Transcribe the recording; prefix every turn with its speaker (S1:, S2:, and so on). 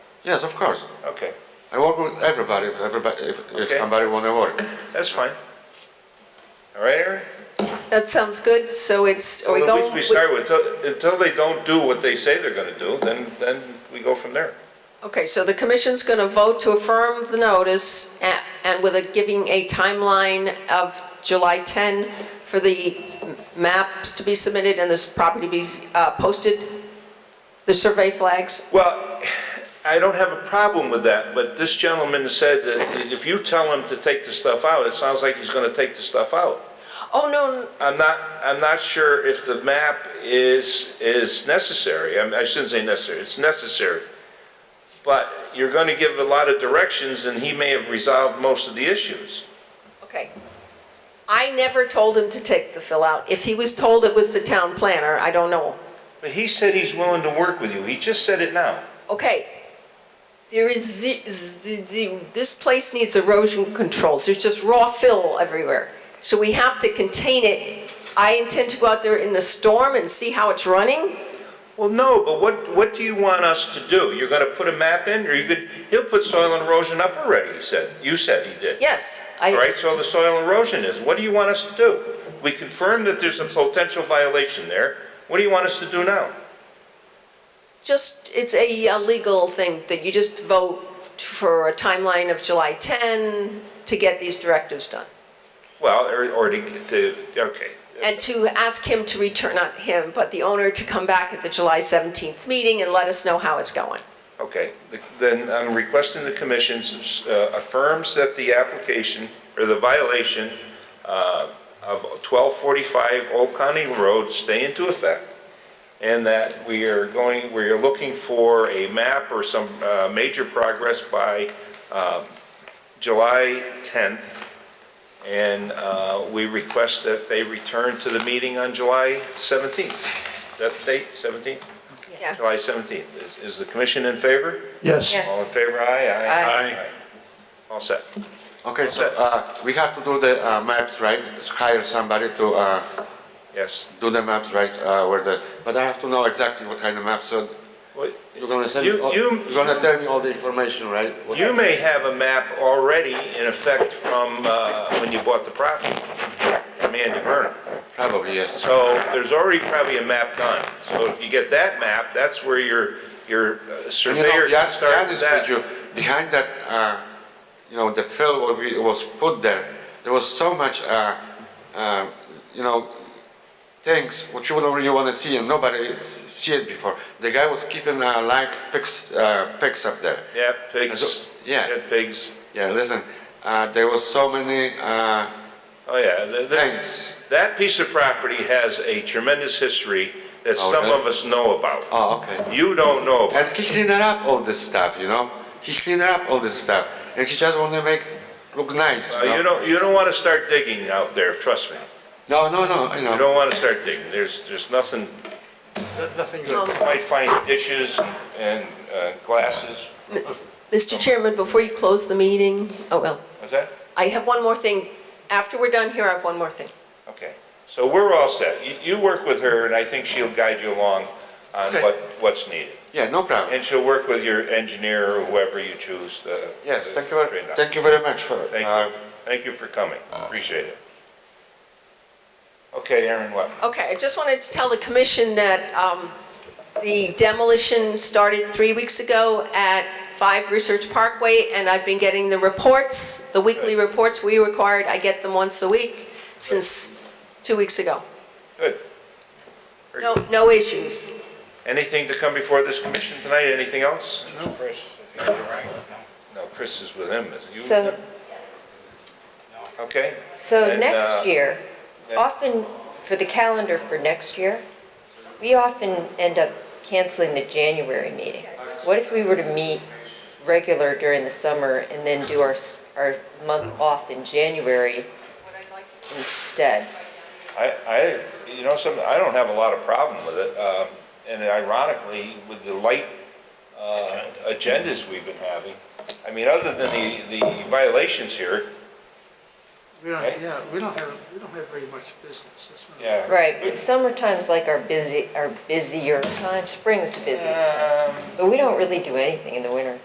S1: Yes, of course.
S2: Okay,
S1: I work with everybody, if everybody, if, if
S2: Okay.
S1: somebody wanna work.
S2: that's fine. All right, Aaron?
S3: That sounds good, so it's, are we
S2: Well,
S3: going?
S2: We start with, until- until they don't do what they say they're gonna do, then, then we go from there.
S3: Okay, so the commission's going to vote to affirm the notice a- and with a, giving a timeline of July 10 for the maps to be submitted and this property be uh, posted, the survey flags?
S2: Well, I don't have a problem with that, but this gentleman said that if you tell him to take the stuff out, it sounds like he's gonna take the stuff out.
S3: Oh, no,
S2: I'm not, I'm not sure if the map is, is necessary. I mean, I shouldn't say necessary, it's necessary. But you're gonna give a lot of directions and he may have resolved most of the issues.
S3: Okay. I never told him to take the fill out. If he was told it was the town planner, I don't know.
S2: But he said he's willing to work with you. He just said it now.
S3: Okay. There is, ze- z- the- this place needs erosion controls. There's just raw fill everywhere. So we have to contain it. I intend to go out there in the storm and see how it's running.
S2: Well, no, but what, what do you want us to do? You're gonna put a map in, or you could, he'll put soil and erosion up already, he said. You said he did.
S3: Yes,
S2: All
S3: I,
S2: right, so the soil erosion is, what do you want us to do? We confirmed that there's a potential violation there. What do you want us to do now?
S3: just, it's a uh, legal thing that you just vote for a timeline of July 10 to get these directives done.
S2: Well, or, or to, to, okay.
S3: And to ask him to return, not him, but the owner to come back at the July 17th meeting and let us know how it's going.
S2: Okay, then I'm requesting the commission uh, affirms that the application, or the violation uh, of 1245 Old County Road stay into effect, and that we are going, we are looking for a map or some uh, major progress by um, July 10th, and uh, we request that they return to the meeting on July 17th. Is that the date, 17th?
S3: Yeah.
S2: July 17th. Is- Is the commission in favor?
S4: Yes.
S3: Yes.
S2: All in favor, aye, aye?
S1: Aye.
S2: All set.
S1: Okay, so,
S2: Okay.
S1: uh, we have to do the, uh, maps, right? Hire somebody to, uh,
S2: Yes.
S1: do the maps, right, uh, where the, but I have to know exactly what kind of maps, so
S2: Well,
S1: you're gonna send, me
S2: You-
S1: all-
S2: you-
S1: you're gonna tell me all the information, right? What-
S2: You may have a map already in effect from uh, when you bought the property, from Andy Burnham.
S1: Probably, yes.
S2: So there's already probably a map done. So if you get that map, that's where your, your
S1: And
S2: uh,
S1: you know,
S2: surveyor
S1: yeah,
S2: can
S1: yeah,
S2: start
S1: this
S2: with
S1: with
S2: that.
S1: you, behind that, uh, you know, the fill what we- was put there, there was so much, uh, uh, you know, things which you don't really want to see and nobody s- see it before. The guy was keeping uh, live pigs, uh, pigs up there.
S2: Yeah,
S1: So-
S2: pigs.
S1: yeah.
S2: Dead pigs.
S1: Yeah, listen, uh, there was so many uh,
S2: Oh, yeah. The- the-
S1: things.
S2: That piece of property has a tremendous history that
S1: Oh,
S2: some
S1: really?
S2: of us know about.
S1: Oh, okay.
S2: You don't know about.
S1: And he cleaned up all this stuff, you know. He cleaned up all this stuff, and he just want to make look nice.
S2: Uh,
S1: you know?
S2: You don't, you don't want to start digging out there, trust me.
S1: No, no, no, you
S2: You
S1: know.
S2: don't want to start digging. There's, there's nothing,
S4: Nothing
S2: you might find dishes and- and uh, glasses.
S3: Mr. Chairman, before you close the meeting, oh, well,
S2: What's that?
S3: I have one more thing. After we're done here, I have one more thing.
S2: Okay. So we're all set. You, you work with her, and I think she'll guide you along on
S1: Okay.
S2: what, what's needed.
S1: Yeah, no problem.
S2: And she'll work with your engineer or whoever you choose to.
S1: Yes,
S2: to
S1: thank you, very-
S2: train up.
S1: thank you very much for,
S2: Thank
S1: uh,
S2: you. Thank you for coming. Appreciate it. Okay, Aaron, what?
S3: Okay, I just wanted to tell the commission that um, the demolition started three weeks ago at 5 Research Parkway, and I've been getting the reports, the weekly reports we required. I get them once a week since two weeks ago.
S2: Good.
S3: No, no issues.
S2: Anything to come before this commission tonight? Anything else?
S4: No, Chris, I think you're right.
S2: No, Chris is with him, is you?
S5: So,
S2: Okay,
S5: so
S2: And, uh,
S5: next year,
S2: yeah.
S5: often for the calendar for next year, we often end up canceling the January meeting. What if we were to meet regular during the summer and then do our, s- our month
S2: Mm-hmm.
S5: off in January instead?
S2: I, I, you know, some, I don't have a lot of problem with it, uh, and ironically, with the light, uh, agendas we've been having, I mean, other than the, the violations here,
S4: We don't,
S2: Right?
S4: yeah, we don't have, we don't have very much business. That's what-
S2: yeah.
S5: Right, but summertime's like our busy, our busier time, spring's the busiest time,
S2: Um,
S5: but we don't really do anything in the winter.